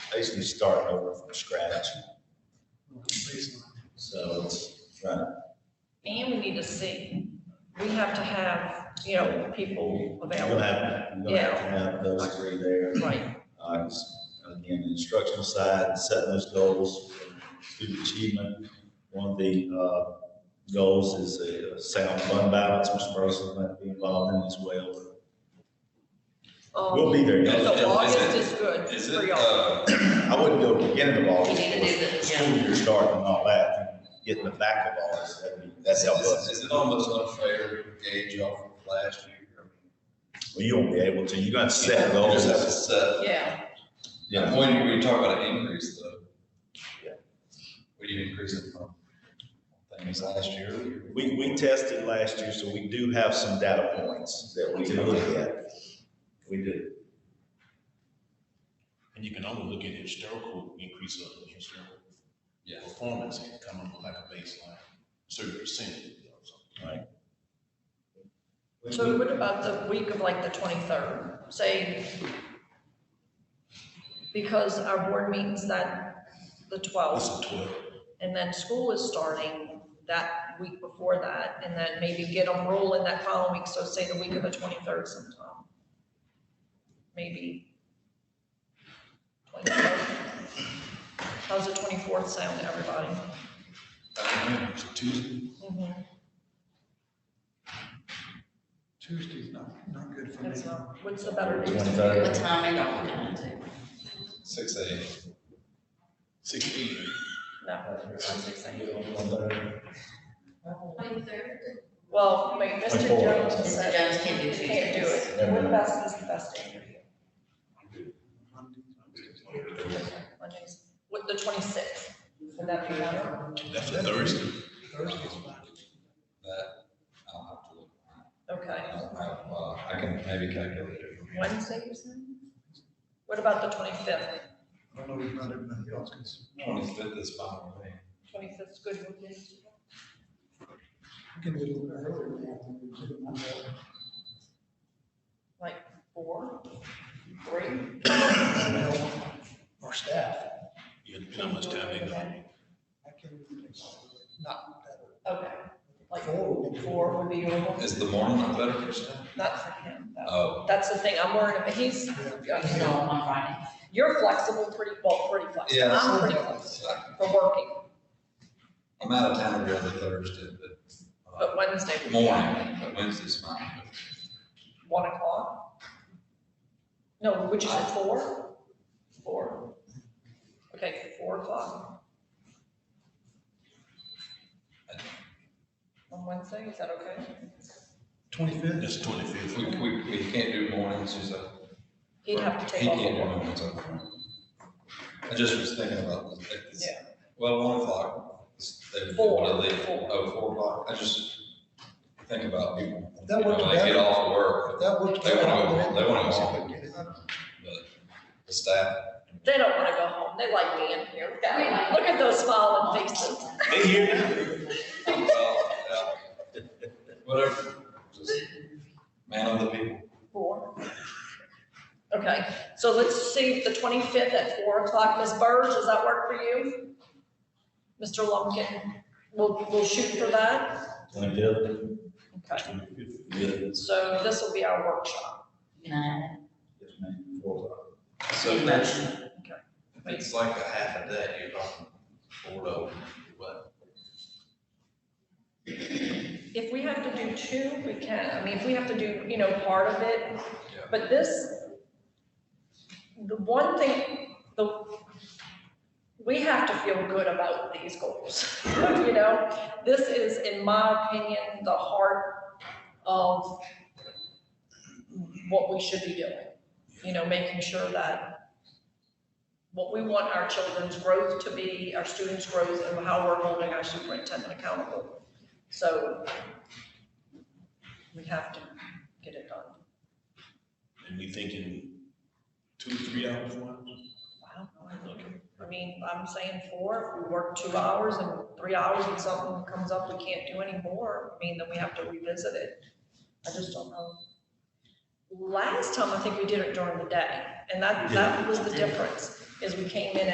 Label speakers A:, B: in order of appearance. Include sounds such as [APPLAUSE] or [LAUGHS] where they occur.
A: basically starting over from scratch. So it's trying to
B: And we need to see, we have to have, you know, people
A: You're gonna
B: available,
A: have, you're gonna have to have those three there.
B: right,
A: Uh, it's, Again, the instructional side, setting those goals, student achievement. One of the uh, goals is a sound fund balance, which Mercer might be involved in as well.
B: um.
A: We'll be there. y'all.
B: So
C: Is it-
B: August is good
C: Is
B: for
C: it,
B: y'all,
C: uh,
A: I wouldn't go to the beginning of
D: We
A: August.
D: need to do the,
A: because
D: yeah.
A: School year starting and all that, getting the back of August, that'd be, that'd
C: is
A: help
C: it,
A: us.
C: is it almost unfair to gauge off of last year? I mean,
A: Well, you won't be able to, you're gonna set
C: You
A: goals.
C: just have to set.
B: yeah,
A: Yeah.
C: When you, when you talk about an increase though.
A: Yeah.
C: What do you increase it from? Things last year?
A: We, we tested last year, so we do have some data points that we can look at. We do.
E: And you can only look at historical increase of historical
C: Yeah.
E: performance and come up with like a baseline, certain percentage. you know, so.
B: so what about the week of like the twenty-third, say, because our board meeting's that, the
E: That's
B: twelfth,
E: a twelve.
B: and then school is starting that week before that, and then maybe get them rolling that following week, so say the week of the twenty-third sometime. Maybe. 23rd. How's the twenty-fourth sound to everybody?
E: It's a Tuesday.
B: Mhm,
F: Tuesday's not, not good for me.
B: that's not- What's the better day?
D: what
A: 23rd.
D: time are y'all going to?
C: Six A.
E: Sixteen.
B: No, it's not six AM.
D: Twenty-third.
B: Well, wait,
A: 24th.
B: Mr. Jones
D: Mr.
B: said,
D: Jones can do Tuesdays.
B: can't do it,
A: Never
B: what
A: mind.
B: about this, the best day for you? Mondays. What, the twenty-sixth, would that be better?
E: That's a Thursday.
F: Thursday's fine.
C: That, I'll have to look.
B: Okay,
C: I don't have, uh, I can maybe calculate it.
B: Wednesday, you said? What about the twenty-fifth?
F: I don't know about everybody else, 'cause
C: Twenty-fifth is fine with me.
B: Twenty-fifth's good with me.
F: we can do it a little earlier. than that, we can do it Monday.
B: Like four, three?
F: Well, Our staff,
E: Yeah, depending on how much time they go.
F: I can, not better.
B: Okay, like
F: Four would be-
B: four would be doable,
C: Is the morning not better for you?
B: not for him, though.
C: Oh,
B: That's the thing, I'm worried about, he's,
D: He's going on Friday.
B: you're flexible, pretty, well, pretty flexible,
C: yeah.
B: I'm pretty flexible for working,
C: I'm out of town every other Thursday, but. uh,
B: but Wednesday would be
C: Morning, but Wednesday's fine.
B: one o'clock. No, would you say four? Four. Okay, four o'clock. On Wednesday, is that okay?
F: Twenty-fifth,
E: That's twenty-fifth.
C: We, we, we can't do mornings, he's a.
B: He'd have to take
C: He
B: off.
C: can't do
B: of work.
C: mornings, okay. I just was thinking about this, like this,
B: Yeah.
C: well, one o'clock. is- they would
B: Four,
C: wanna leave.
B: four.
C: Oh, four o'clock, I just think about people.
F: That
C: you know,
F: works
C: They get
F: better.
C: off work,
F: that would.
C: They wanna go- they wanna go home. but the staff,
B: They don't wanna go home, they like being here, Look
D: We
B: at-
D: like-
B: look at those smiling faces.
A: They here now.
C: well, yeah, whatever, just man of the people.
B: Four. Okay, so let's see, the twenty-fifth at four o'clock, Ms. Burge, does that work for you? Mr. Lumpkin, we'll, we'll shoot for that,
A: Twenty-fifth.
B: okay,
A: Good.
B: so this will be our workshop.
D: Can I?
A: Yes, ma'am. Four o'clock.
C: So that's,
D: Motion.
C: it's like a half a day, you're talking four to, what?
B: If we have to do two, we can. I mean, if we have to do, you know, part of it.
C: Yeah.
B: But this, the one thing, the, we have to feel good about these goals. [LAUGHS] You know, this is, in my opinion, the heart of what we should be doing. You know, making sure that what we want our children's growth to be, our students' growth, and how we're holding our superintendent accountable. So we have to get it done.
E: And we thinking two, three hours, one?
B: I don't know, I
E: Okay.
B: think- I mean, I'm saying four, if we work two hours and three hours and something comes up, we can't do anymore, I mean, then we have to revisit it. I just don't know. Last time, I think we did it during the day, and that, that was the difference. is we came in